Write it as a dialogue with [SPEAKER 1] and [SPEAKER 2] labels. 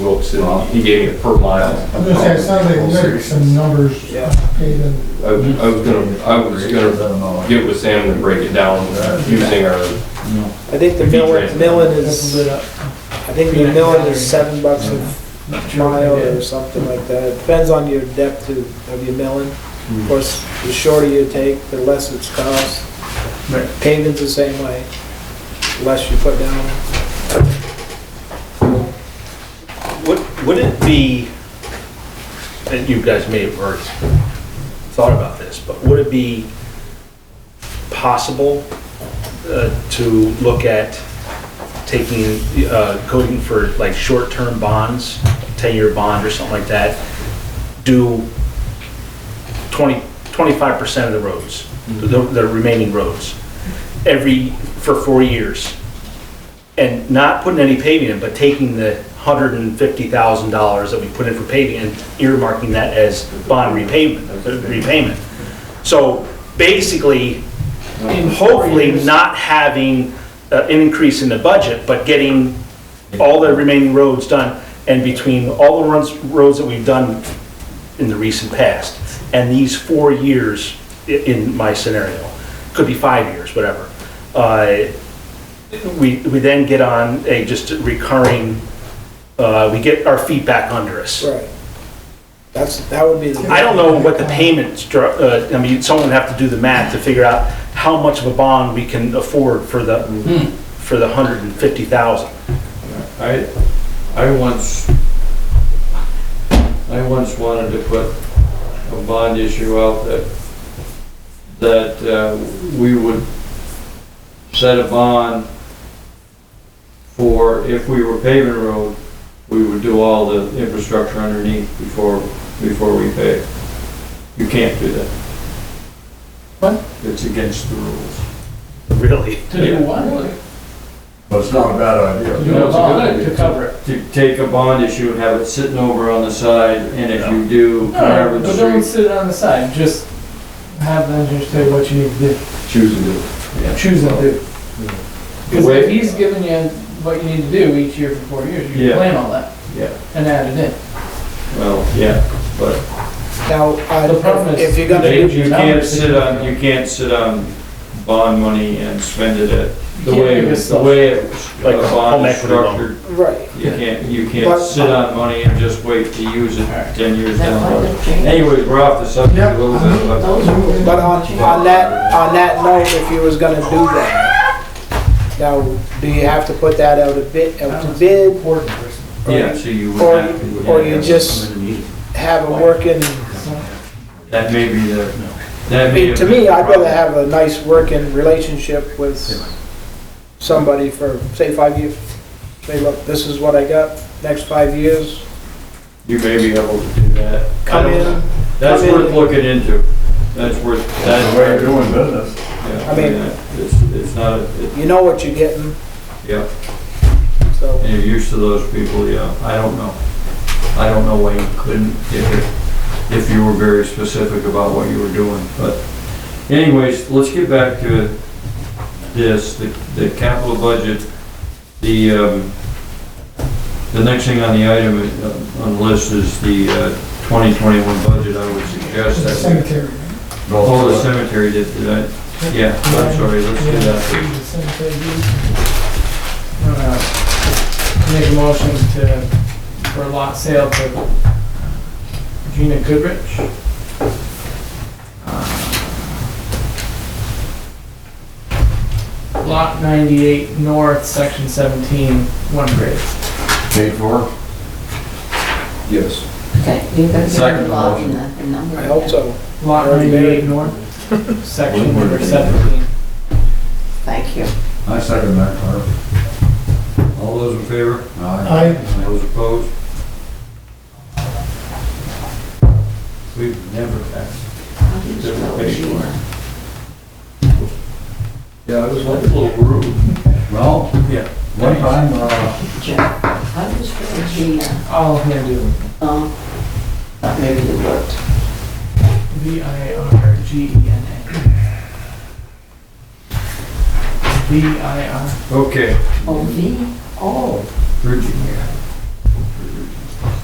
[SPEAKER 1] books, and he gave me a per mile.
[SPEAKER 2] I'm gonna say, it sounds like you got some numbers
[SPEAKER 3] Yeah.
[SPEAKER 2] updated.
[SPEAKER 1] I I was gonna, I was gonna get with Sam and break it down uh, using our,
[SPEAKER 3] I think the milling, milling is, uh, I think the milling is seven bucks a mile or something like that. It Depends on your depth of of your milling. Of course, the shorter you take, the less it's cost.
[SPEAKER 4] Right.
[SPEAKER 3] Paving's the same way, the less you put down.
[SPEAKER 5] Would, would it be, and you guys may have already thought about this, but would it be possible uh, to look at taking, uh, going for like short-term bonds, 10-year bond or something like that, do 20, 25% of the roads, the the remaining roads, every, for four years? and not putting any paving in, but taking the hundred and fifty thousand dollars that we put in for paving and earmarking that as bond repayment, uh, repayment. So basically, hopefully not having uh, an increase in the budget, but getting all the remaining roads done. And between all the runs, roads that we've done in the recent past, and these four years i- in my scenario, could be five years, whatever. uh, we, we then get on a just recurring, uh, we get our feet back under us.
[SPEAKER 3] Right. That's, that would be the.
[SPEAKER 5] I don't know what the payment stru, uh, I mean, someone would have to do the math to figure out how much of a bond we can afford for the, for the hundred and fifty thousand.
[SPEAKER 1] I, I once, I once wanted to put a bond issue out that, that uh, we would set a bond for if we were paving a road, we would do all the infrastructure underneath before, before we pave. You can't do that.
[SPEAKER 2] What?
[SPEAKER 1] It's against the rules.
[SPEAKER 5] Really?
[SPEAKER 6] To do what?
[SPEAKER 4] But it's not a bad
[SPEAKER 6] To
[SPEAKER 4] idea.
[SPEAKER 6] do
[SPEAKER 1] No,
[SPEAKER 6] a
[SPEAKER 1] it's a good
[SPEAKER 6] bond,
[SPEAKER 1] idea.
[SPEAKER 6] to cover it.
[SPEAKER 1] to take a bond issue and have it sitting over on the side, and if you do,
[SPEAKER 6] No,
[SPEAKER 1] Carver
[SPEAKER 6] but don't
[SPEAKER 1] Street.
[SPEAKER 6] sit on the side, just have the engineer tell you what you need to do,
[SPEAKER 1] Choose to do.
[SPEAKER 6] choose and do. Because
[SPEAKER 1] Wait.
[SPEAKER 6] if he's giving you what you need to do each year for four years, you
[SPEAKER 1] Yeah.
[SPEAKER 6] can plan all that
[SPEAKER 1] Yeah,
[SPEAKER 6] and add it in.
[SPEAKER 1] well, yeah, but
[SPEAKER 3] Now, I-
[SPEAKER 6] The problem is-
[SPEAKER 3] if you're gonna
[SPEAKER 1] they-
[SPEAKER 3] do.
[SPEAKER 1] you can't sit on, you can't sit on bond money and spend it at, the
[SPEAKER 6] You can't
[SPEAKER 1] way,
[SPEAKER 6] make it
[SPEAKER 1] the way it's-
[SPEAKER 5] Like
[SPEAKER 1] a bond
[SPEAKER 5] home
[SPEAKER 1] is
[SPEAKER 5] equity loan.
[SPEAKER 1] structured,
[SPEAKER 3] Right.
[SPEAKER 1] you can't, you can't
[SPEAKER 3] But- uh,
[SPEAKER 1] sit on money and just wait to use it ten years down the road. Anyways, we're off the subject a little bit, but
[SPEAKER 3] But on, on that, on that note, if you was gonna do that, now, do you have to put that out a bit, out to bid?
[SPEAKER 6] Important person.
[SPEAKER 1] yeah, so you would
[SPEAKER 3] Or-
[SPEAKER 1] have to.
[SPEAKER 3] or you just- Have a working,
[SPEAKER 1] That may be the, that
[SPEAKER 3] I
[SPEAKER 1] may.
[SPEAKER 3] mean, to me, I'd rather have a nice working relationship with somebody for, say, five years. Say, look, this is what I got, next five years,
[SPEAKER 1] You may be able to do that. I
[SPEAKER 3] come
[SPEAKER 1] don't-
[SPEAKER 3] in.
[SPEAKER 1] That's
[SPEAKER 3] Come in.
[SPEAKER 1] worth looking into. That's worth,
[SPEAKER 4] That's
[SPEAKER 1] that's
[SPEAKER 4] the way you're
[SPEAKER 1] where,
[SPEAKER 4] doing business.
[SPEAKER 1] yeah,
[SPEAKER 3] I
[SPEAKER 1] I
[SPEAKER 3] mean-
[SPEAKER 1] mean, it's, it's not, a- it-
[SPEAKER 3] You know what you're getting,
[SPEAKER 1] yeah,
[SPEAKER 3] so.
[SPEAKER 1] and you're used to those people, yeah, I don't know. I don't know why you couldn't, if, it- if you were very specific about what you were doing, but anyways, let's get back to this, the, the capital budget, the, um, the next thing on the item, uh, on the list is the, uh, twenty twenty-one budget, I would suggest that we
[SPEAKER 2] Cemetery.
[SPEAKER 1] Oh, the cemetery did, did I? Yeah, I'm sorry, let's do that.
[SPEAKER 6] The cemetery deed. Uh, Make a motion to, for lot sale to Gina Goodrich. Uh, Lot ninety-eight north, section seventeen, one grade.
[SPEAKER 4] Paid for? Yes.
[SPEAKER 7] Okay, you've got to get
[SPEAKER 4] Second
[SPEAKER 7] a lot
[SPEAKER 4] motion.
[SPEAKER 7] in the, the number.
[SPEAKER 3] I hope so.
[SPEAKER 6] Lot ninety-eight north, section number seventeen.
[SPEAKER 7] Thank you.
[SPEAKER 4] I second that, Carver.
[SPEAKER 1] All those in favor?
[SPEAKER 4] Aye.
[SPEAKER 2] I,
[SPEAKER 1] Those opposed? We've never passed.
[SPEAKER 7] How do you spell Sheila?
[SPEAKER 1] Yeah, it was like a little rude.
[SPEAKER 4] Well,
[SPEAKER 1] Oh, Yeah.
[SPEAKER 4] one time, uh,
[SPEAKER 7] Jeff, How do you spell Gina?
[SPEAKER 6] All Hindu.
[SPEAKER 7] Oh, thought maybe it worked.
[SPEAKER 6] V I R G E N A. V I R.
[SPEAKER 1] Okay,
[SPEAKER 6] E
[SPEAKER 7] Oh, V, oh,
[SPEAKER 1] Virginia.